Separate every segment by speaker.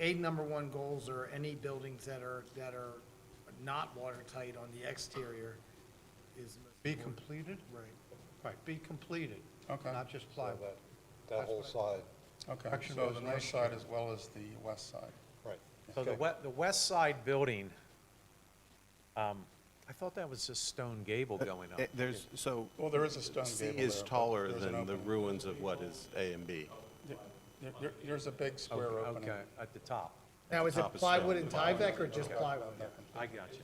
Speaker 1: A number one goals are any buildings that are, that are not watertight on the exterior is.
Speaker 2: Be completed?
Speaker 1: Right.
Speaker 2: Right, be completed,
Speaker 3: Okay.
Speaker 2: not just
Speaker 4: So
Speaker 2: plywood.
Speaker 4: that, that whole side,
Speaker 3: Okay,
Speaker 2: Actually,
Speaker 3: so
Speaker 2: it was
Speaker 3: the north
Speaker 2: last
Speaker 3: side
Speaker 2: year.
Speaker 3: as well as the west side.
Speaker 4: right.
Speaker 5: So the
Speaker 4: Okay.
Speaker 5: we, the west side building, um, I thought that was just stone gable going up.
Speaker 6: Eh, There's, so.
Speaker 3: Well, there is a stone
Speaker 6: C
Speaker 3: gable
Speaker 6: is
Speaker 3: there, but
Speaker 6: taller
Speaker 3: there's an
Speaker 6: than the
Speaker 3: opening.
Speaker 6: ruins of what is A and B.
Speaker 3: There- there- There's a big square
Speaker 5: Okay,
Speaker 3: Oh, opening.
Speaker 5: Okay, at the top.
Speaker 1: Now, is it
Speaker 6: Top is
Speaker 1: plywood
Speaker 6: stone.
Speaker 1: and Tyvek or just plywood?
Speaker 5: I got you.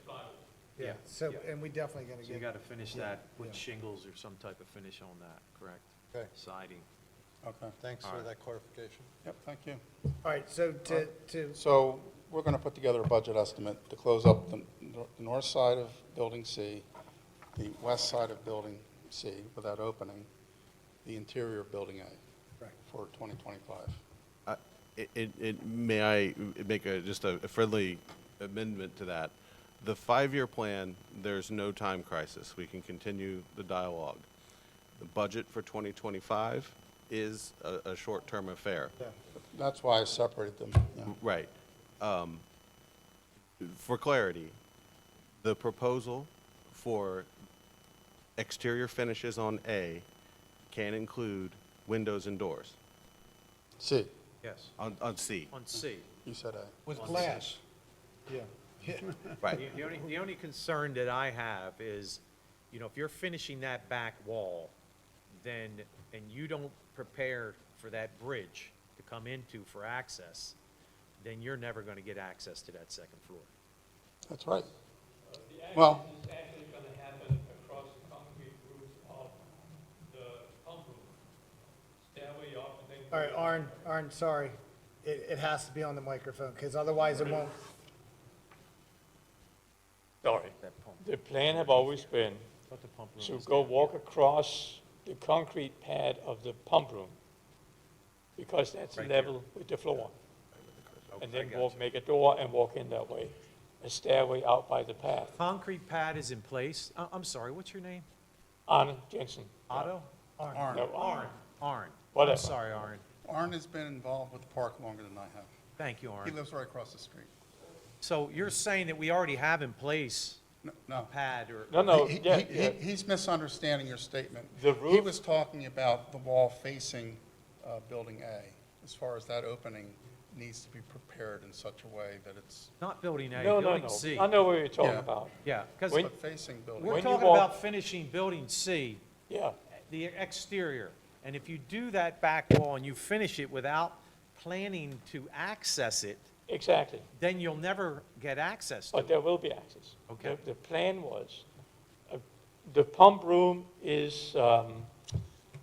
Speaker 1: Yeah,
Speaker 5: Yeah,
Speaker 1: so,
Speaker 5: yeah.
Speaker 1: and we definitely gotta
Speaker 5: So you
Speaker 1: get.
Speaker 5: got to finish that
Speaker 1: yeah.
Speaker 5: with shingles or some type of finish on that, correct?
Speaker 4: Okay.
Speaker 5: Siding.
Speaker 3: Okay,
Speaker 4: Thanks for that clarification.
Speaker 3: yep, thank you.
Speaker 1: All right, so to, to,
Speaker 3: So we're going to put together a budget estimate to close up the nor- the north side of Building C, the west side of Building C without opening, the interior of Building A
Speaker 1: Right.
Speaker 3: for 2025.
Speaker 6: I- uh, It, it- it, may I make a, just a a friendly amendment to that? The five-year plan, there's no time crisis. We can continue the dialogue. The budget for 2025 is a, a short-term affair.
Speaker 3: That's why I separated them. yeah.
Speaker 6: Right. Um, For clarity, the proposal for exterior finishes on A can include windows and doors
Speaker 3: C,
Speaker 5: Yes,
Speaker 6: on, on C.
Speaker 5: on C.
Speaker 3: you said A.
Speaker 2: With glass.
Speaker 1: yeah.
Speaker 5: The-
Speaker 6: Right,
Speaker 5: The only, the only concern that I have is, you know, if you're finishing that back wall, then, and you don't prepare for that bridge to come into for access, then you're never gonna get access to that second floor.
Speaker 3: That's right.
Speaker 7: The
Speaker 3: Well-
Speaker 7: action is actually going to happen across the concrete roofs of the pump room. Stairway up and then.
Speaker 1: All right, Arn, Arn, sorry. It, it has to be on the microphone, because otherwise it won't.
Speaker 7: Sorry. The plan have always been
Speaker 5: Thought the pump room
Speaker 7: to
Speaker 5: was
Speaker 7: go
Speaker 5: down.
Speaker 7: walk across the concrete pad of the pump room because that's
Speaker 5: Right there.
Speaker 7: level with the floor. And
Speaker 5: Okay, I
Speaker 7: then
Speaker 5: got
Speaker 7: walk,
Speaker 5: you.
Speaker 7: make a door and walk in that way, a stairway out by the path.
Speaker 5: Concrete pad is in place. I, I'm sorry, what's your name?
Speaker 7: Anna Jensen.
Speaker 5: Otto?
Speaker 3: Arn.
Speaker 7: No, Uh, Arn.
Speaker 5: Arn. I'm
Speaker 7: Whatever.
Speaker 5: sorry, Arn.
Speaker 3: Arn has been involved with the park longer than I have.
Speaker 5: Thank you,
Speaker 3: He
Speaker 5: Arn.
Speaker 3: lives right across the street.
Speaker 5: So you're saying that we already have in place
Speaker 3: No, No.
Speaker 5: pad or?
Speaker 7: No, no,
Speaker 3: He- he-
Speaker 7: yeah,
Speaker 3: he-
Speaker 7: yeah.
Speaker 3: He's misunderstanding your statement.
Speaker 7: The
Speaker 3: He
Speaker 7: roof-
Speaker 3: was talking about the wall facing uh, Building A, as far as that opening needs to be prepared in such a way that it's,
Speaker 5: Not building A,
Speaker 7: No, no,
Speaker 5: building
Speaker 7: no.
Speaker 5: C.
Speaker 7: I know what you're talking
Speaker 3: Yeah.
Speaker 7: about.
Speaker 5: Yeah, because
Speaker 7: When-
Speaker 3: but facing Building
Speaker 5: we're
Speaker 7: when
Speaker 3: A.
Speaker 7: you
Speaker 5: talking
Speaker 7: walk-
Speaker 5: about finishing building C,
Speaker 7: Yeah.
Speaker 5: the exterior. And if you do that back wall and you finish it without planning to access it,
Speaker 7: Exactly,
Speaker 5: then you'll never get access to
Speaker 7: but
Speaker 5: it.
Speaker 7: there will be access.
Speaker 5: Okay.
Speaker 7: The- The plan was, uh, the pump room is, um,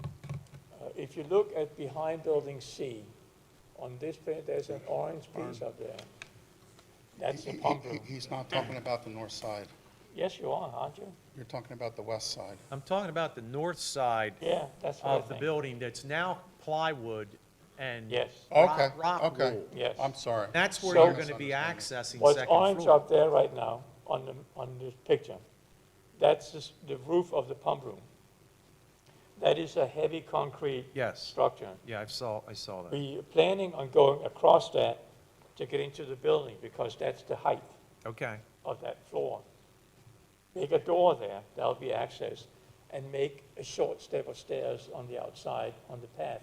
Speaker 7: uh, if you look at behind building C, on this plan, there's an orange piece up there. That's
Speaker 3: He-
Speaker 7: the
Speaker 3: he-
Speaker 7: pump
Speaker 3: he-
Speaker 7: room.
Speaker 3: He's not talking about the north side.
Speaker 7: Yes, you are, aren't you?
Speaker 3: You're talking about the west side.
Speaker 5: I'm talking about the north side
Speaker 7: Yeah, that's what I
Speaker 5: of the
Speaker 7: think.
Speaker 5: building that's now plywood and.
Speaker 7: Yes.
Speaker 3: Okay,
Speaker 5: rock
Speaker 3: okay.
Speaker 5: wall.
Speaker 7: Yes.
Speaker 3: I'm sorry.
Speaker 5: That's where
Speaker 7: So-
Speaker 5: you're gonna be accessing
Speaker 7: What's
Speaker 5: second
Speaker 7: orange
Speaker 5: floor.
Speaker 7: up there right now on the, on this picture, that's the s- the roof of the pump room. That is a heavy concrete
Speaker 5: Yes,
Speaker 7: structure.
Speaker 5: yeah, I saw, I saw that.
Speaker 7: We are planning on going across that to get into the building because that's the height
Speaker 5: Okay,
Speaker 7: of that floor. Make a door there, that'll be access, and make a short step of stairs on the outside, on the path,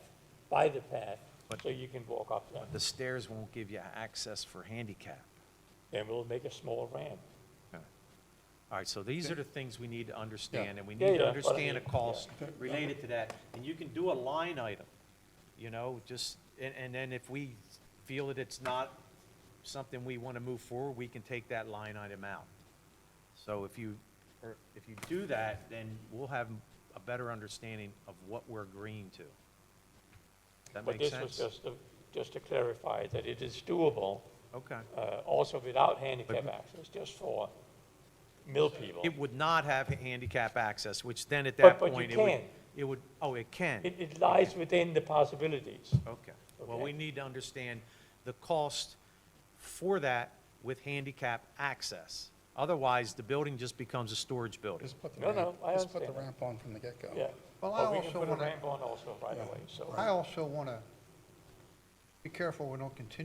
Speaker 7: by the path,
Speaker 5: But-
Speaker 7: so you can walk up there.
Speaker 5: the stairs won't give you access for handicap.
Speaker 7: Then we'll make a small ramp.
Speaker 5: All right, so these are the things we need to understand, and we need
Speaker 7: Yeah, yeah,
Speaker 5: to
Speaker 7: but I
Speaker 5: understand a
Speaker 7: mean,
Speaker 5: cost related to that. And you can do a line item, you know, just, and, and then if we feel that it's not something we want to move forward, we can take that line item out. So if you, or if you do that, then we'll have a better understanding of what we're agreeing to. That
Speaker 7: But
Speaker 5: makes
Speaker 7: this was
Speaker 5: sense?
Speaker 7: just to, just to clarify that it is doable,
Speaker 5: Okay.
Speaker 7: uh, also without handicap access, just for mill people.
Speaker 5: It would not have handicap access, which then at
Speaker 7: But-
Speaker 5: that
Speaker 7: but you
Speaker 5: point, it would,
Speaker 7: can.
Speaker 5: it would, oh, it can?
Speaker 7: It, it lies within the possibilities.
Speaker 5: Okay, well, we
Speaker 7: Okay.
Speaker 5: need to understand the cost for that with handicap access. Otherwise, the building just becomes a storage building.
Speaker 3: Just put the
Speaker 7: No,
Speaker 3: ramp,
Speaker 7: no, I
Speaker 3: just put the
Speaker 7: understand that.
Speaker 3: ramp on from the get-go.
Speaker 7: Yeah.
Speaker 2: Well, I
Speaker 7: But we can
Speaker 2: also
Speaker 7: put a
Speaker 2: wanna-
Speaker 7: ramp on also right away, so.
Speaker 2: I also want to be careful we don't continue